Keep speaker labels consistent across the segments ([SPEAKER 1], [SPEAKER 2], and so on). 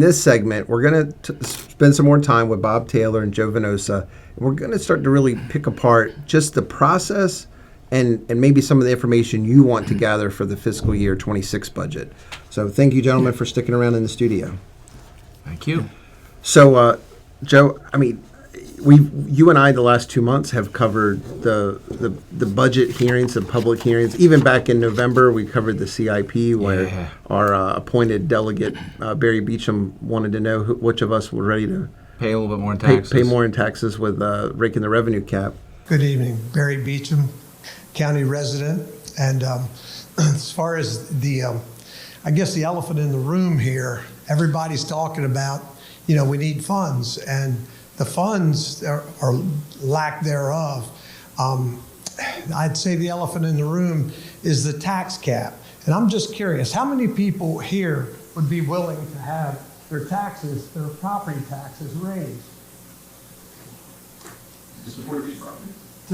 [SPEAKER 1] In this segment, we're going to spend some more time with Bob Taylor and Joe Venosa. We're going to start to really pick apart just the process and, and maybe some of the information you want to gather for the fiscal year 26 budget. So thank you, gentlemen, for sticking around in the studio.
[SPEAKER 2] Thank you.
[SPEAKER 1] So, uh, Joe, I mean, we, you and I, the last two months have covered the, the the budget hearings, the public hearings. Even back in November, we covered the CIP, where
[SPEAKER 2] Yeah.
[SPEAKER 1] our uh, appointed delegate uh, Barry Beecham wanted to know who, which of us were ready to
[SPEAKER 2] Pay a little bit more in
[SPEAKER 1] pay,
[SPEAKER 2] taxes.
[SPEAKER 1] pay more in taxes with uh, raking the revenue cap.
[SPEAKER 3] Good evening, Barry Beecham, county resident. And um, as far as the, um, I guess the elephant in the room here, everybody's talking about, you know, we need funds and the funds are, or lack thereof. Um, I'd say the elephant in the room is the tax cap. And I'm just curious, how many people here would be willing to have their taxes, their property taxes raised? to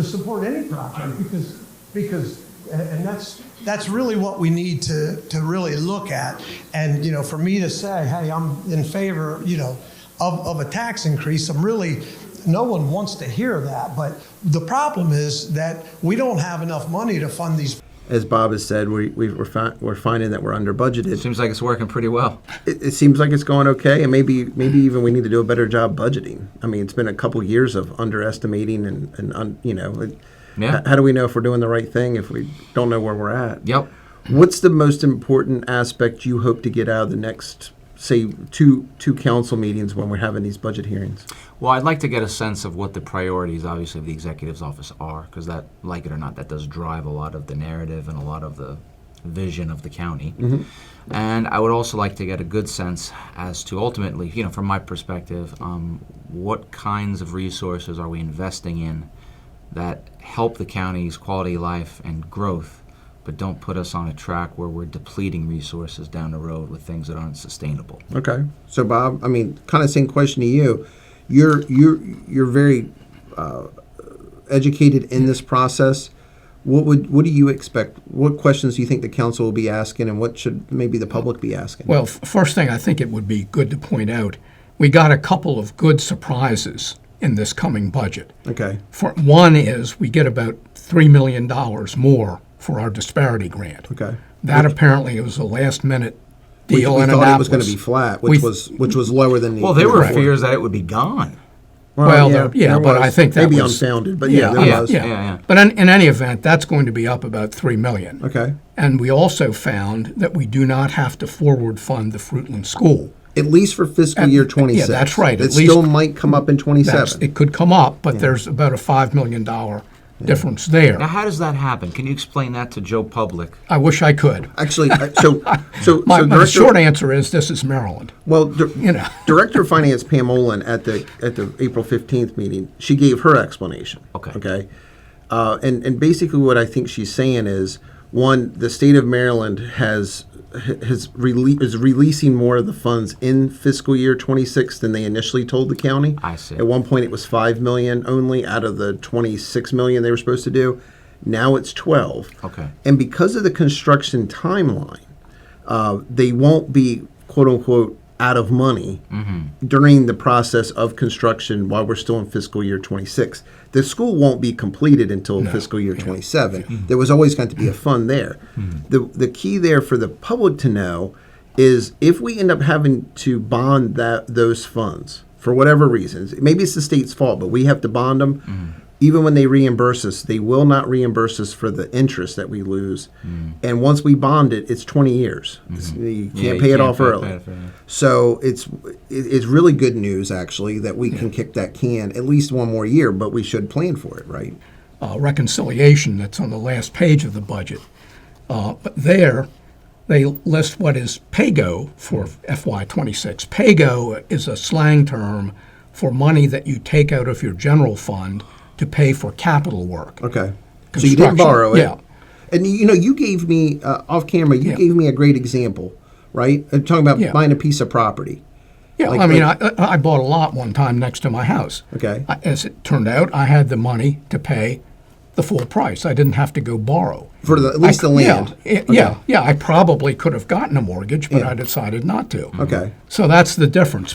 [SPEAKER 3] support any project because, because, and and that's, that's really what we need to, to really look at. And, you know, for me to say, hey, I'm in favor, you know, of, of a tax increase, I'm really, no one wants to hear that. But the problem is that we don't have enough money to fund these
[SPEAKER 1] As Bob has said, we, we we're, fi- we're finding that we're under budgeted.
[SPEAKER 2] Seems like it's working pretty well.
[SPEAKER 1] it, it seems like it's going okay, and maybe maybe even we need to do a better job budgeting. I mean, it's been a couple years of underestimating and and un, you know, it,
[SPEAKER 2] Yeah.
[SPEAKER 1] h- how do we know if we're doing the right thing if we don't know where we're at?
[SPEAKER 2] Yep.
[SPEAKER 1] What's the most important aspect you hope to get out of the next, say, two two council meetings when we're having these budget hearings?
[SPEAKER 2] Well, I'd like to get a sense of what the priorities, obviously, of the executive's office are, because that, like it or not, that does drive a lot of the narrative and a lot of the vision of the county. And I would also like to get a good sense as to ultimately, you know, from my perspective, um, what kinds of resources are we investing in that help the county's quality of life and growth, but don't put us on a track where we're depleting resources down the road with things that aren't sustainable.
[SPEAKER 1] Okay. So Bob, I mean, kind of same question to you. You're you're you're very uh, educated in this process. What would what do you expect? What questions do you think the council will be asking, and what should maybe the public be asking?
[SPEAKER 4] Well, f- first thing I think it would be good to point out, we got a couple of good surprises in this coming budget.
[SPEAKER 1] okay.
[SPEAKER 4] For one is we get about three million dollars more for our disparity grant.
[SPEAKER 1] Okay.
[SPEAKER 4] That apparently was a last minute
[SPEAKER 1] We,
[SPEAKER 4] deal
[SPEAKER 1] we
[SPEAKER 4] in
[SPEAKER 1] thought it was going to
[SPEAKER 4] Annapolis.
[SPEAKER 1] be flat, which
[SPEAKER 4] We-
[SPEAKER 1] was which was lower than the.
[SPEAKER 2] Well, there were
[SPEAKER 1] before.
[SPEAKER 2] fears that it would be gone.
[SPEAKER 4] Well, there- yeah,
[SPEAKER 1] there
[SPEAKER 4] but I think that
[SPEAKER 1] maybe
[SPEAKER 4] was-
[SPEAKER 1] unfounded, but yeah, there
[SPEAKER 2] yeah,
[SPEAKER 1] was.
[SPEAKER 4] yeah.
[SPEAKER 2] yeah.
[SPEAKER 4] But in, in any event, that's going to be up about three million.
[SPEAKER 1] Okay.
[SPEAKER 4] And we also found that we do not have to forward fund the Fruitland School.
[SPEAKER 1] At least for fiscal year twenty six.
[SPEAKER 4] that's right,
[SPEAKER 1] It
[SPEAKER 4] at
[SPEAKER 1] still
[SPEAKER 4] least-
[SPEAKER 1] might come up in twenty
[SPEAKER 4] That's,
[SPEAKER 1] seven.
[SPEAKER 4] it could come up, but there's about a five million dollar difference there.
[SPEAKER 2] Now, how does that happen? Can you explain that to Joe Public?
[SPEAKER 4] I wish I could.
[SPEAKER 1] Actually, I- so so
[SPEAKER 4] My,
[SPEAKER 1] so
[SPEAKER 4] my
[SPEAKER 1] Director-
[SPEAKER 4] short answer is this is Maryland.
[SPEAKER 1] Well, dir-
[SPEAKER 4] You know.
[SPEAKER 1] Director of Finance Pam Olin at the at the April fifteenth meeting, she gave her explanation.
[SPEAKER 2] Okay.
[SPEAKER 1] Okay. Uh, and and basically, what I think she's saying is one, the state of Maryland has has rele- is releasing more of the funds in fiscal year twenty six than they initially told the county.
[SPEAKER 2] I see.
[SPEAKER 1] At one point, it was five million only out of the twenty six million they were supposed to do. Now it's twelve.
[SPEAKER 2] Okay.
[SPEAKER 1] And because of the construction timeline, uh, they won't be quote unquote out of money during the process of construction while we're still in fiscal year 26. The school won't be completed until fiscal year 27. There was always going to be a fund there. The, the key there for the public to know is if we end up having to bond that those funds for whatever reasons, maybe it's the state's fault, but we have to bond them.
[SPEAKER 2] Mm-hmm.
[SPEAKER 1] Even when they reimburse us, they will not reimburse us for the interest that we lose. And once we bond it, it's 20 years. It's- you can't
[SPEAKER 2] Mm. Mm-hmm. Yeah, you
[SPEAKER 1] pay it
[SPEAKER 2] can't
[SPEAKER 1] off
[SPEAKER 2] pay-
[SPEAKER 1] early.
[SPEAKER 2] pay it off early.
[SPEAKER 1] So it's it- it's really good news actually that we can kick that can at least one more year, but we should plan for it, right?
[SPEAKER 4] uh, reconciliation that's on the last page of the budget. Uh, but there, they list what is PAYGO for FY26. PAYGO is a slang term for money that you take out of your general fund to pay for capital work.
[SPEAKER 1] Okay. So you didn't
[SPEAKER 4] Construction,
[SPEAKER 1] borrow it.
[SPEAKER 4] yeah.
[SPEAKER 1] And you know, you gave me uh, off camera. You
[SPEAKER 4] Yeah.
[SPEAKER 1] gave me a great example, right? I'm talking about
[SPEAKER 4] Yeah.
[SPEAKER 1] buying a piece of property.
[SPEAKER 4] Yeah,
[SPEAKER 1] Like-
[SPEAKER 4] I mean, I, I bought a lot one time next to my house.
[SPEAKER 1] Okay.
[SPEAKER 4] I, as it turned out, I had the money to pay the full price. I didn't have to go borrow.
[SPEAKER 1] for the, at least the land.
[SPEAKER 4] Yeah, it- yeah, yeah. I probably could have gotten a mortgage, but I decided not to.
[SPEAKER 1] Okay.
[SPEAKER 4] So that's the difference.